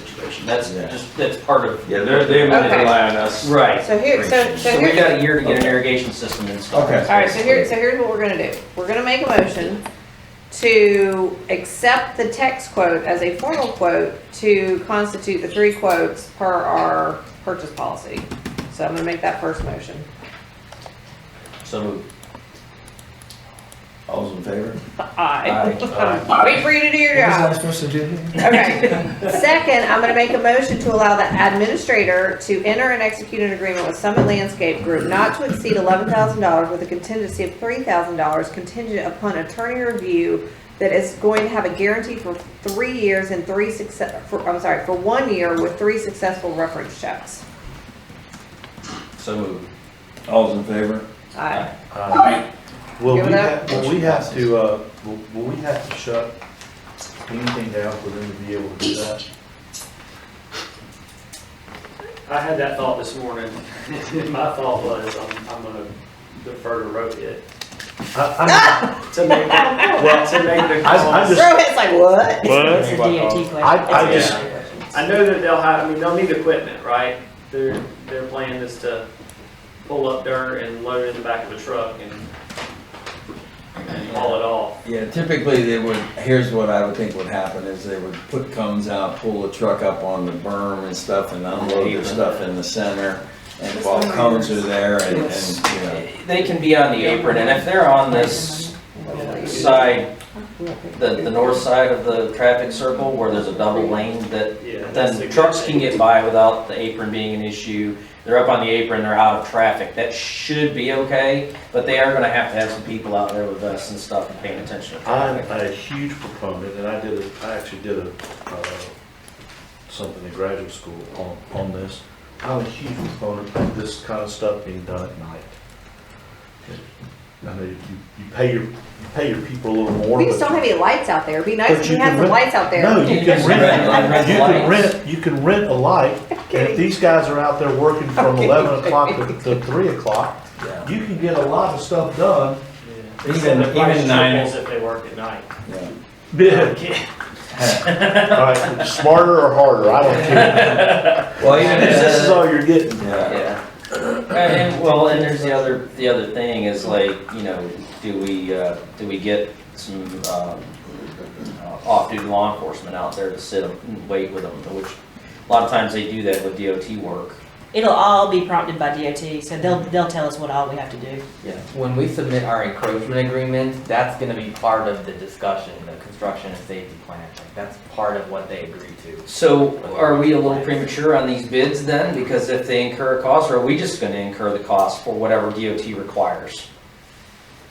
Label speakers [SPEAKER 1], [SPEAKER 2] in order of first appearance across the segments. [SPEAKER 1] situation. That's
[SPEAKER 2] Yeah.
[SPEAKER 1] just, that's part of,
[SPEAKER 2] Yeah, they're, they would
[SPEAKER 3] Okay.
[SPEAKER 2] rely on us.
[SPEAKER 1] right.
[SPEAKER 3] So here, so, so
[SPEAKER 1] So we
[SPEAKER 3] here,
[SPEAKER 1] got a year to get an irrigation system installed.
[SPEAKER 2] Okay.
[SPEAKER 3] all right, so here, so here's what we're gonna do. We're gonna make a motion to accept the text quote as a formal quote to constitute the three quotes per our purchase policy. So I'm gonna make that first motion.
[SPEAKER 1] So moved.
[SPEAKER 2] All's in favor?
[SPEAKER 1] Aye.
[SPEAKER 3] Aye. Wait for you to do your job.
[SPEAKER 2] What was I supposed to do here?
[SPEAKER 3] Okay. Second, I'm gonna make a motion to allow the administrator to enter and execute an agreement with Summit Landscape Group not to exceed eleven thousand dollars with a contingency of three thousand dollars contingent upon attorney review that is going to have a guarantee for three years and three success, for, I'm sorry, for one year with three successful reference checks.
[SPEAKER 1] So moved.
[SPEAKER 2] All's in favor?
[SPEAKER 3] Aye.
[SPEAKER 4] Will Uh, we
[SPEAKER 3] Give it up.
[SPEAKER 4] have, will we have to, uh, will, will we have to shut anything down for them to be able to do that?
[SPEAKER 5] I had that thought this morning. My thought was, I'm, I'm gonna defer to road it
[SPEAKER 4] I,
[SPEAKER 5] to make, well, to make the
[SPEAKER 4] I, I, I
[SPEAKER 5] cost.
[SPEAKER 4] just,
[SPEAKER 3] Rohit's like, what?
[SPEAKER 6] What?
[SPEAKER 7] It's a DOT question.
[SPEAKER 4] I- I
[SPEAKER 7] It's a
[SPEAKER 4] just-
[SPEAKER 7] DOT question.
[SPEAKER 5] I know that they'll have, I mean, they'll need equipment, right? Their, their plan is to pull up dirt and load it in the back of a truck and haul it off.
[SPEAKER 2] Yeah, typically they would, here's what I would think would happen is they would put cones out, pull the truck up on the berm and stuff and unload their stuff in the center. And while cones are there and, and, you know.
[SPEAKER 1] They can be on the apron, and if they're on this side, the, the north side of the traffic circle where there's a double lane that,
[SPEAKER 5] Yeah. that's a
[SPEAKER 1] then
[SPEAKER 5] good
[SPEAKER 1] trucks can
[SPEAKER 5] thing.
[SPEAKER 1] get by without the apron being an issue. They're up on the apron, they're out of traffic. That should be okay, but they are gonna have to have some people out there with vests and stuff and paying attention to
[SPEAKER 4] I'm
[SPEAKER 1] traffic.
[SPEAKER 4] a huge proponent, and I did, a- I actually did a, uh, something in graduate school on, on this. I'm a huge proponent of this kind of stuff being done at night. I know you, you pay your, you pay your people a little more.
[SPEAKER 3] We just
[SPEAKER 4] but-
[SPEAKER 3] don't have any lights out there. It'd be nice
[SPEAKER 4] But
[SPEAKER 3] if
[SPEAKER 4] you
[SPEAKER 3] we had
[SPEAKER 4] can
[SPEAKER 3] some
[SPEAKER 4] rent-
[SPEAKER 3] lights out there.
[SPEAKER 4] No, you can
[SPEAKER 1] Rent
[SPEAKER 4] rent, you can
[SPEAKER 1] lights.
[SPEAKER 4] rent, you can rent a light, and if these guys are out there working from
[SPEAKER 3] Okay.
[SPEAKER 4] eleven o'clock to, to three o'clock,
[SPEAKER 2] Yeah.
[SPEAKER 4] you can get a lot of stuff done.
[SPEAKER 5] Yeah.
[SPEAKER 2] Even-
[SPEAKER 5] And the price
[SPEAKER 2] even nine-
[SPEAKER 5] triples If they work at night.
[SPEAKER 2] yeah.
[SPEAKER 4] Yeah. All right, smarter or harder, I don't care.
[SPEAKER 2] Well, even if
[SPEAKER 4] This is all you're getting.
[SPEAKER 2] Yeah.
[SPEAKER 1] Yeah. And, and- well, and there's the other, the other thing is like, you know, do we, uh, do we get some, um, uh, off-duty law enforcement out there to sit and wait with them, which a lot of times they do that with DOT work.
[SPEAKER 7] It'll all be prompted by DOT, so they'll, they'll tell us what all we have to do.
[SPEAKER 6] Yeah, when we submit our encroachment agreement, that's gonna be part of the discussion, the construction and safety plan. Like, that's part of what they agree to.
[SPEAKER 1] So are we a little premature on these bids then? Because if they incur a cost, or are we just gonna incur the cost for whatever DOT requires?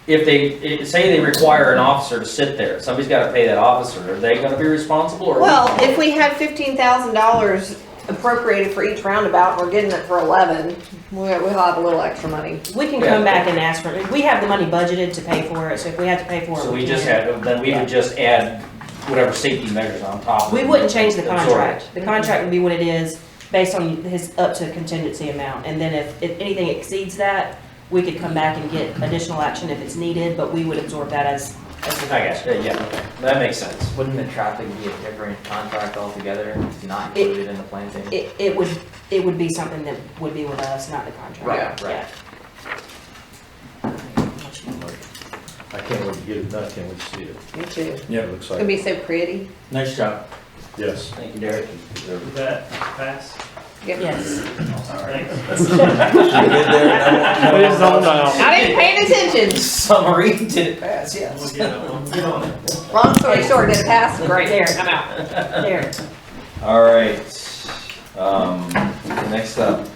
[SPEAKER 1] If they, it- say they require an officer to sit there, somebody's gotta pay that officer, are they gonna be responsible or? are we-
[SPEAKER 3] Well, if we had fifteen thousand dollars appropriated for each roundabout, and we're getting it for eleven, we'll, we'll have a little extra money.
[SPEAKER 7] We can
[SPEAKER 1] Yeah.
[SPEAKER 7] come back and ask for it. We have the money budgeted to pay for it, so if we have to pay for it,
[SPEAKER 1] So we
[SPEAKER 7] we
[SPEAKER 1] just
[SPEAKER 7] can.
[SPEAKER 1] had, then we would just add whatever safety measures on top. of
[SPEAKER 7] We
[SPEAKER 1] it.
[SPEAKER 7] wouldn't change the
[SPEAKER 1] Absorb it.
[SPEAKER 7] contract. The contract would be what it is, based on his up to contingency amount. And then if, if anything exceeds that, we could come back and get additional action if it's needed, but we would absorb that as, as.
[SPEAKER 1] I
[SPEAKER 7] the
[SPEAKER 1] got you, yeah, okay. that makes sense.
[SPEAKER 6] Wouldn't the traffic be a different contract altogether, not
[SPEAKER 7] It-
[SPEAKER 6] included in the plan? thing?
[SPEAKER 7] It, it would, it would be something that would be with us, not the
[SPEAKER 6] Right,
[SPEAKER 7] contract.
[SPEAKER 6] right.
[SPEAKER 7] Yeah.
[SPEAKER 4] I can't wait to get it done, can't wait to see it.
[SPEAKER 3] Me too. It's
[SPEAKER 4] Yeah. It looks
[SPEAKER 3] gonna
[SPEAKER 4] like,
[SPEAKER 3] be so pretty.
[SPEAKER 2] Nice job.
[SPEAKER 4] yes.
[SPEAKER 1] Thank you, Derek.
[SPEAKER 5] Does that pass?
[SPEAKER 3] Yep.
[SPEAKER 7] Yes.
[SPEAKER 5] Thanks.
[SPEAKER 6] Put his own down.
[SPEAKER 3] I didn't pay attention.
[SPEAKER 1] Summary, did it pass,
[SPEAKER 5] We'll
[SPEAKER 1] yes.
[SPEAKER 5] get it. We'll get on it.
[SPEAKER 3] Long story short, did it pass? Great.
[SPEAKER 7] There, I'm out. There.
[SPEAKER 2] All right, um, next up,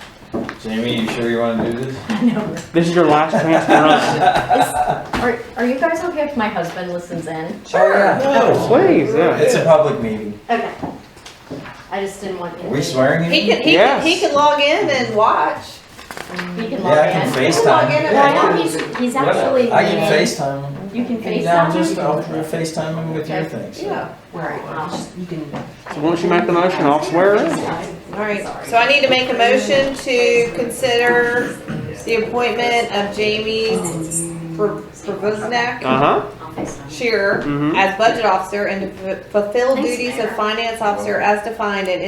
[SPEAKER 2] Jamie, you sure you wanna do this?
[SPEAKER 6] This is your last chance to run.
[SPEAKER 8] Are, are you guys okay if my husband listens in?
[SPEAKER 2] Sure. No,
[SPEAKER 6] Please,
[SPEAKER 2] it's a public meeting.
[SPEAKER 8] Okay. I just didn't want
[SPEAKER 2] Are
[SPEAKER 8] him.
[SPEAKER 2] we swearing in?
[SPEAKER 3] He could, he could, he could log in and watch.
[SPEAKER 8] He can
[SPEAKER 2] Yeah, I
[SPEAKER 8] log
[SPEAKER 2] can
[SPEAKER 8] in.
[SPEAKER 3] log in
[SPEAKER 2] FaceTime.
[SPEAKER 3] and
[SPEAKER 8] Well, I
[SPEAKER 2] Yeah,
[SPEAKER 8] know he's, he's
[SPEAKER 1] Whatever.
[SPEAKER 8] actually
[SPEAKER 2] I can
[SPEAKER 8] leaving.
[SPEAKER 2] FaceTime. him.
[SPEAKER 8] You can
[SPEAKER 2] And now just, I'll
[SPEAKER 8] FaceTime him?
[SPEAKER 2] FaceTime him with your things.
[SPEAKER 3] Yeah.
[SPEAKER 7] Right, I'll just- you can,
[SPEAKER 6] So once you make the motion, I'll swear it in.
[SPEAKER 3] All right. So I need to make a motion to consider the appointment of Jamie Provoznak
[SPEAKER 6] Uh-huh,
[SPEAKER 3] Shearer
[SPEAKER 6] mm-hmm.
[SPEAKER 3] as budget officer and to fu- fulfill
[SPEAKER 8] Thanks,
[SPEAKER 3] duties of
[SPEAKER 8] Sarah.
[SPEAKER 3] finance officer as defined in